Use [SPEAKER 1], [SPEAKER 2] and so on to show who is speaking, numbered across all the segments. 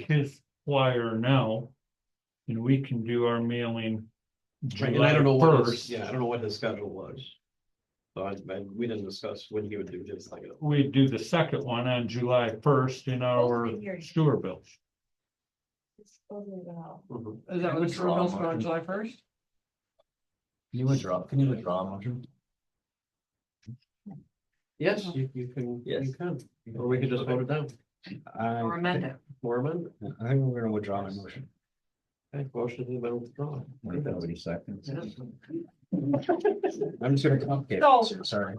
[SPEAKER 1] his flyer now. And we can do our mailing.
[SPEAKER 2] Right, and I don't know
[SPEAKER 1] July
[SPEAKER 2] what his,
[SPEAKER 1] first.
[SPEAKER 2] yeah, I don't know what his schedule was. So I, I, we didn't discuss when he would do this, like,
[SPEAKER 1] We do the second one on July first in our
[SPEAKER 3] hearing.
[SPEAKER 1] sewer bills.
[SPEAKER 3] It's over well.
[SPEAKER 2] Mm-hmm.
[SPEAKER 4] Is that what the sewer
[SPEAKER 5] Withdraw
[SPEAKER 4] bills are on
[SPEAKER 5] motion.
[SPEAKER 4] July first?
[SPEAKER 5] Can you withdraw, can you withdraw a motion?
[SPEAKER 2] yes, you, you can, you
[SPEAKER 5] Yes.
[SPEAKER 2] can, or we could just vote it down,
[SPEAKER 5] I,
[SPEAKER 3] Or amend it.
[SPEAKER 2] or amend. it.
[SPEAKER 5] I think we're gonna withdraw my motion.
[SPEAKER 2] Okay, motion has been withdrawn.
[SPEAKER 5] What if nobody seconds?
[SPEAKER 2] Yeah.
[SPEAKER 5] I'm just gonna complicate,
[SPEAKER 3] So-
[SPEAKER 5] it, sorry,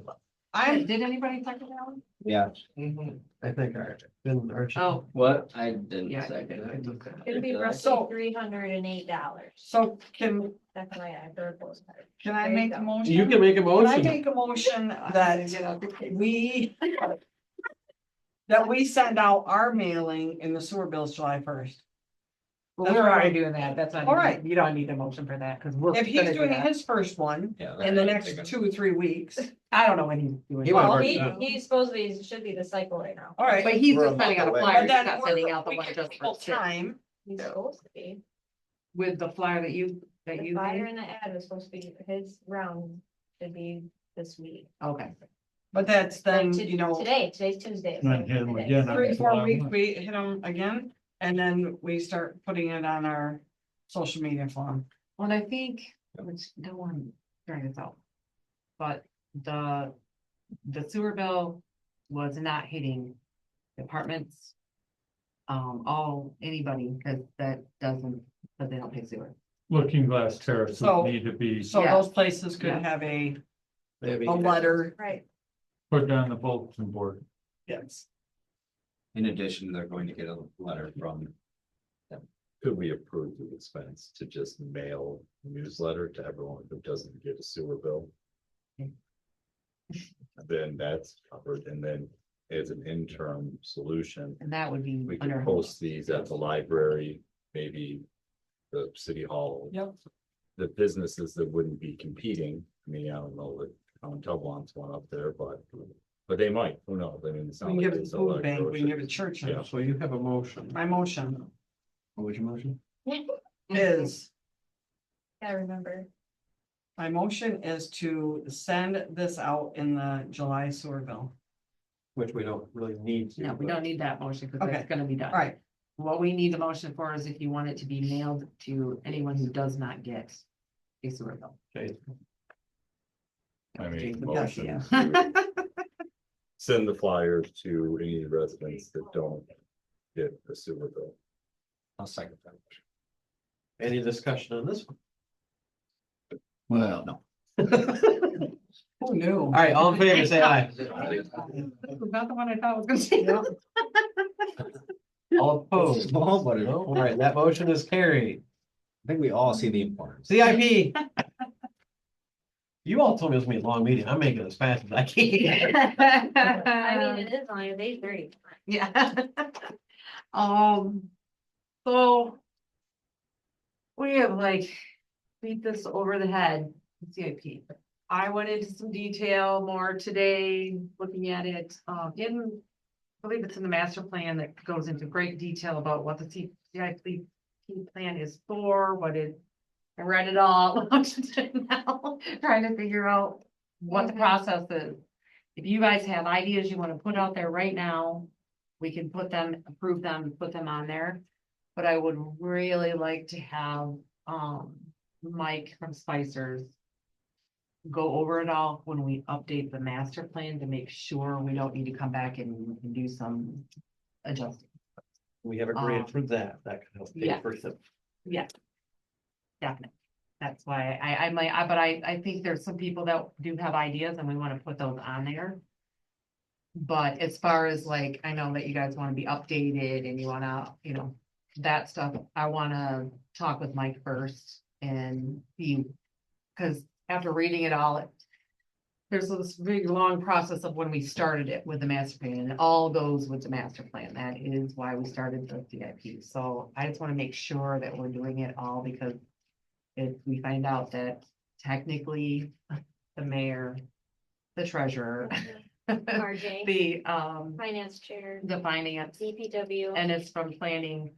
[SPEAKER 3] I, did anybody second that one?
[SPEAKER 5] yeah. Mm-hmm.
[SPEAKER 2] I think Arch, then Arch.
[SPEAKER 3] Oh,
[SPEAKER 6] What? I didn't
[SPEAKER 3] Yeah, I
[SPEAKER 6] second.
[SPEAKER 2] did. I took
[SPEAKER 6] it.
[SPEAKER 3] it'd be
[SPEAKER 1] uh,
[SPEAKER 6] Did I?
[SPEAKER 3] roughly
[SPEAKER 4] So-
[SPEAKER 3] three hundred and eight dollars.
[SPEAKER 4] So can,
[SPEAKER 3] That's why I heard those. numbers.
[SPEAKER 4] can I
[SPEAKER 3] There you
[SPEAKER 4] make
[SPEAKER 3] go.
[SPEAKER 4] a motion?
[SPEAKER 2] You can make a
[SPEAKER 4] Can I
[SPEAKER 2] motion,
[SPEAKER 4] make a motion that we that we send out our mailing in the sewer bills July first?
[SPEAKER 7] Well, we're already doing that, that's not.
[SPEAKER 4] All
[SPEAKER 7] even-
[SPEAKER 4] right.
[SPEAKER 7] You don't need a motion for that, because we're.
[SPEAKER 4] If he's
[SPEAKER 7] gonna do
[SPEAKER 4] doing
[SPEAKER 7] that.
[SPEAKER 4] his first one
[SPEAKER 5] Yeah.
[SPEAKER 4] in the
[SPEAKER 5] that-
[SPEAKER 4] next two, three weeks,
[SPEAKER 7] I don't know when he's
[SPEAKER 5] He
[SPEAKER 7] doing.
[SPEAKER 5] would've
[SPEAKER 3] Well,
[SPEAKER 5] already
[SPEAKER 3] he,
[SPEAKER 5] done
[SPEAKER 3] he's supposed to be, should be the cycle right now.
[SPEAKER 4] all right.
[SPEAKER 7] But he's
[SPEAKER 5] We're a
[SPEAKER 7] just sending out
[SPEAKER 5] month away.
[SPEAKER 7] a flyer,
[SPEAKER 4] But
[SPEAKER 7] he's
[SPEAKER 4] then
[SPEAKER 7] not
[SPEAKER 4] we're-
[SPEAKER 7] sending out the
[SPEAKER 4] we
[SPEAKER 7] one
[SPEAKER 4] give
[SPEAKER 7] just
[SPEAKER 4] people
[SPEAKER 7] for sale.
[SPEAKER 4] Time,
[SPEAKER 3] He's supposed to be.
[SPEAKER 7] With the flyer that you, that
[SPEAKER 3] The
[SPEAKER 7] you
[SPEAKER 3] flyer
[SPEAKER 7] made,
[SPEAKER 3] and the ad was supposed to be, his round should be this week.
[SPEAKER 7] okay.
[SPEAKER 4] but that's then,
[SPEAKER 3] Like to-
[SPEAKER 4] you know,
[SPEAKER 3] Today, today's Tuesday. so
[SPEAKER 1] Not him
[SPEAKER 3] today.
[SPEAKER 1] again, I
[SPEAKER 4] three,
[SPEAKER 1] July
[SPEAKER 4] four weeks,
[SPEAKER 1] one.
[SPEAKER 4] we hit them again, and then we start putting it on our social media form.
[SPEAKER 7] Well, I think, which no one during this out. But the, the sewer bill was not hitting departments. Um, all, anybody, because that doesn't, because they don't pay sewer.
[SPEAKER 1] Looking glass terraces
[SPEAKER 4] So-
[SPEAKER 1] need to be
[SPEAKER 4] So
[SPEAKER 7] Yeah.
[SPEAKER 4] those places could
[SPEAKER 7] Yeah.
[SPEAKER 4] have a,
[SPEAKER 2] Maybe.
[SPEAKER 4] a letter,
[SPEAKER 3] Right,
[SPEAKER 1] put on the bulletin board.
[SPEAKER 4] yes.
[SPEAKER 5] In addition, they're going to get a letter from. them.
[SPEAKER 8] Could we approve the expense to just mail newsletter to everyone who doesn't get a sewer bill? Then that's covered, and then as an interim solution,
[SPEAKER 7] And that would be
[SPEAKER 8] we could
[SPEAKER 7] under.
[SPEAKER 8] post these at the library, maybe. The city hall.
[SPEAKER 4] Yep.
[SPEAKER 8] The businesses that wouldn't be competing, I mean, I don't know that Town Tub wants one up there, but, but they might, who knows, I mean. it's not
[SPEAKER 4] We can
[SPEAKER 8] like
[SPEAKER 4] give it to
[SPEAKER 8] it's a
[SPEAKER 4] food
[SPEAKER 8] lot of
[SPEAKER 4] bank, we can
[SPEAKER 8] grocery-
[SPEAKER 4] give it to church.
[SPEAKER 8] Yeah.
[SPEAKER 2] So you have a motion.
[SPEAKER 4] My motion
[SPEAKER 5] What was your motion?
[SPEAKER 4] is,
[SPEAKER 3] gotta remember.
[SPEAKER 4] my motion is to send this out in the July sewer bill.
[SPEAKER 2] Which we don't really need to.
[SPEAKER 7] No, we
[SPEAKER 2] but-
[SPEAKER 7] don't need that motion because
[SPEAKER 4] Okay.
[SPEAKER 7] that's gonna be done.
[SPEAKER 4] All right,
[SPEAKER 7] What we need a motion for is if you want it to be mailed to anyone who does not get a sewer bill.
[SPEAKER 2] Okay,
[SPEAKER 8] I make a
[SPEAKER 7] Jason,
[SPEAKER 8] motion
[SPEAKER 7] yeah.
[SPEAKER 8] to Send the flyers to any residents that don't get a sewer bill.
[SPEAKER 5] I'll second that. motion.
[SPEAKER 2] Any discussion on this? one?
[SPEAKER 5] Well, no.
[SPEAKER 4] who knew?
[SPEAKER 2] All right, all in favor, say aye.
[SPEAKER 7] Not the one I thought was gonna say.
[SPEAKER 2] All
[SPEAKER 5] It's
[SPEAKER 2] opposed.
[SPEAKER 5] Small, but it- I
[SPEAKER 2] All right, that motion is carried.
[SPEAKER 5] think we all see the importance.
[SPEAKER 2] CIP. You all told me it was gonna be a long meeting. I'm making it as fast as I can.
[SPEAKER 3] I mean, it is only eight thirty.
[SPEAKER 7] Yeah. Um, so. We have like beat this over the head, with CIP. I went into some detail more today, looking at it, um, in. I believe it's in the master plan that goes into great detail about what the C- CIP plan is for, what it. I read it all now, trying to figure out what the
[SPEAKER 3] Okay.
[SPEAKER 7] process is. If you guys have ideas you wanna put out there right now, we can put them, approve them, put them on there. But I would really like to have, um, Mike from Spicer's. Go over it all when we update the master plan to make sure we don't need to come back and and do some adjusting.
[SPEAKER 2] We have agreed for that. That can help pay
[SPEAKER 7] Yeah.
[SPEAKER 2] for some.
[SPEAKER 7] Yeah. Definitely. That's why I, I might, I, but I, I think there's some people that do have ideas and we wanna put those on there. But as far as like, I know that you guys wanna be updated and you wanna, you know, that stuff, I wanna talk with Mike first and he. Cause after reading it all, it- there's this big long process of when we started it with the master plan and it all goes with the master plan. That is why we started the CIP. So I just wanna make sure that we're doing it all because if we find out that technically the mayor, the treasurer,
[SPEAKER 3] RJ,
[SPEAKER 7] the, um,
[SPEAKER 3] finance chair,
[SPEAKER 7] the finance,
[SPEAKER 3] DPW.
[SPEAKER 7] and it's from planning